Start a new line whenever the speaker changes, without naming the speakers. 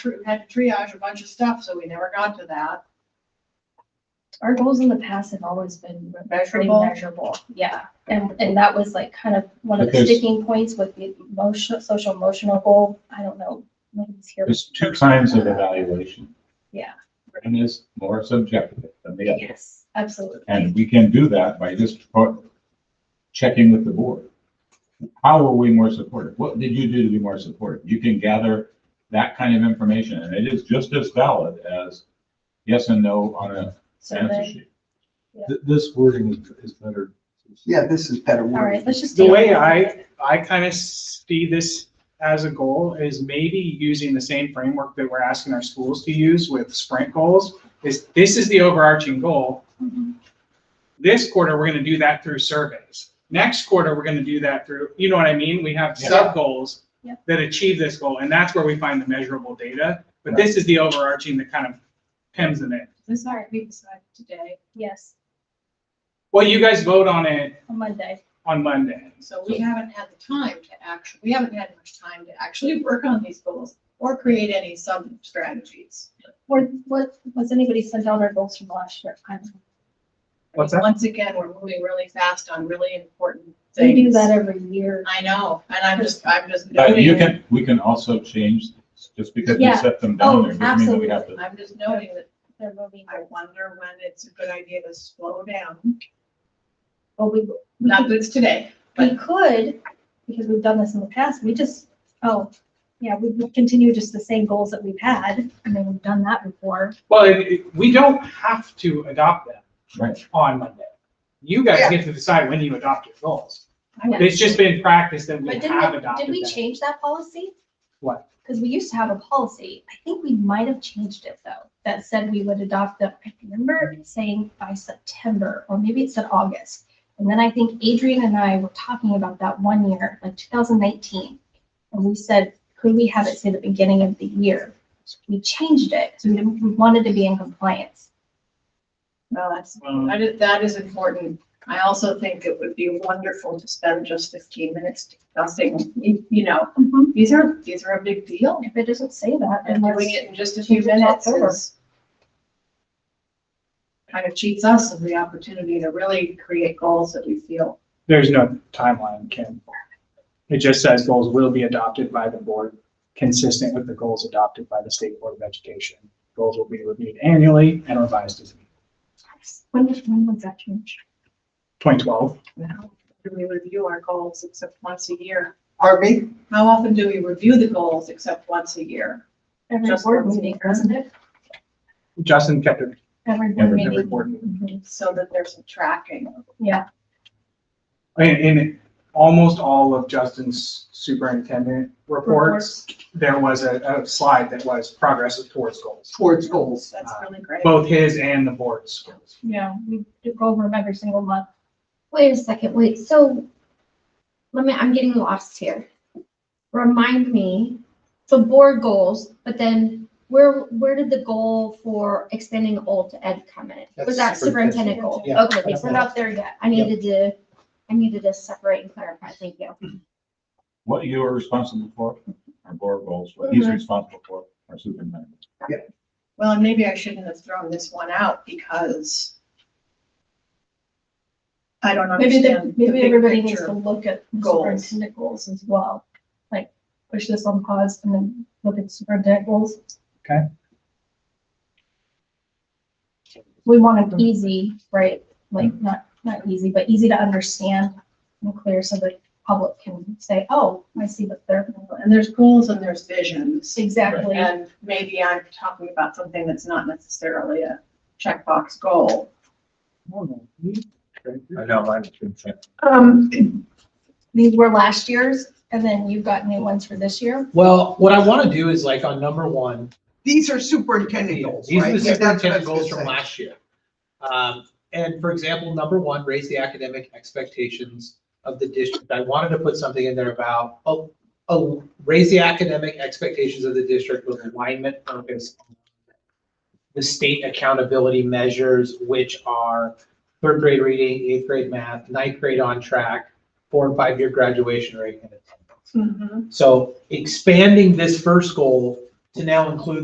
tr- had to triage a bunch of stuff, so we never got to that.
Our goals in the past have always been pretty
Measurable,
measurable, yeah. And, and that was like kind of one of the
Because-
sticking points with the emotional, social emotional goal. I don't know. nobody's here.
There's two kinds of evaluation.
Yeah.
One is more subjective than the other,
Yes, absolutely.
and we can do that by just po- checking with the board. How are we more supportive? What did you do to be more supportive? You can gather that kind of information, and it is just as valid as yes and no on a
So
answer
then,
sheet.
Th- This wording is- is better.
Yeah, this is better.
all right, let's just.
The
do
way
it.
I- I kind of see this as a goal is maybe using the same framework that we're asking our schools to use with sprint goals. Is this is the overarching goal.
Mhm.
This quarter, we're gonna do that through surveys. Next quarter, we're gonna do that through, you know what I mean? We have
Yeah.
sub-goals
Yeah.
that achieve this goal, and that's where we find the measurable data. But this is the overarching that kind of hems them in.
this is we decided today,
Yes,
Well, you guys vote on it
on Monday.
on Monday.
so we haven't had the time to actually, we haven't had much time to actually work on these goals or create any sub-strategies.
Or what, was anybody sent out our goals from last year? I don't know.
What's that?
Once again, we're moving really fast on really important
We
things.
do that every year.
I know, and I'm just, I'm just
But you
noting,
can, we can also change, just because we
Yeah.
set them
Oh,
down there, doesn't mean that we have to.
I'm just noting that
They're moving.
I wonder when it's a good idea to slow down.
Well, we, we
Not that it's today,
We could, because we've done this in the past, we just, oh, yeah, we would continue just the same goals that we've had. I mean, we've done that before.
Well, it- it- we don't have to adopt that.
Right.
on Monday. You guys
Yeah.
get to decide when you adopt your goals.
Yeah.
It's just been practice that we
But
have
didn't, we-
adopted
did we
that.
change that policy?
What?
Because we used to have a policy. I think we might have changed it though, that said we would adopt the, I remember it saying by September, or maybe it said August. And then I think Adrian and I were talking about that one year, like two thousand nineteen. And we said, could we have it say the beginning of the year? We changed it, so we didn't, we wanted to be in compliance.
well, that's,
Um,
that is, that is important. I also think it would be wonderful to spend just fifteen minutes discussing, you you know, these are, these are a big deal.
If it doesn't say that, then
And
let's-
doing it in just a few
Change it
minutes
over.
is kind of cheats us of the opportunity to really create goals that we feel.
There's no timeline, Kim. It just says goals will be adopted by the board, consistent with the goals adopted by the State Board of Education. Goals will be reviewed annually and revised as needed.
When was, when was that changed?
2012.
How Do we review our goals except once a year?
Harvey,
How often do we review the goals except once a year?
Every
Just
board
once a
meeting,
year.
wasn't it?
Justin kept it
Every board
Every-
meeting.
every
important.
Mhm.
So that there's some tracking.
Yeah,
In, in almost all of Justin's superintendent reports, there was a, a slide that was progress towards goals,
towards goals.
That's really great.
both his and the board's goals.
yeah, we do go over them every single month.
Wait a second, wait, so, let me, I'm getting lost here. Remind me, so board goals, but then where, where did the goal for expanding old to ed come in? Was
That's
that superintendendent
superintendent.
goal?
Yeah.
Okay, we're not there yet. I needed to, I needed to separate and clarify, thank you.
What you are responsible for, our board goals, what he's responsible for, our superintendent.
Well, and maybe I shouldn't have thrown this one out because I don't
Maybe the,
understand. the
maybe
big
everybody needs
picture.
to look at the
goals.
superintendent goals as well. Like, push this on pause and then look at superintendent goals.
Okay.
We want it easy, right? Like, not, not easy, but easy to understand and clear so the public can say, oh, I see what they're.
And there's goals and there's visions.
Exactly.
And maybe I'm talking about something that's not necessarily a checkbox goal.
I know, I.
Um,
These were last year's and then you've got new ones for this year.
Well, what I want to do is like on number one,
These are superintendent goals,
these
right?
are the
Yeah, that's what I
superintendent
was gonna
goals from
say.
last year. Um, and for example, number one, raise the academic expectations of the district. I wanted to put something in there about, oh, oh, raise the academic expectations of the district with alignment focus. on The state accountability measures, which are third grade reading, eighth grade math, ninth grade on track, four and
Mm-hmm.
five year graduation rate and attendance.
mhm.
So expanding this first goal to now include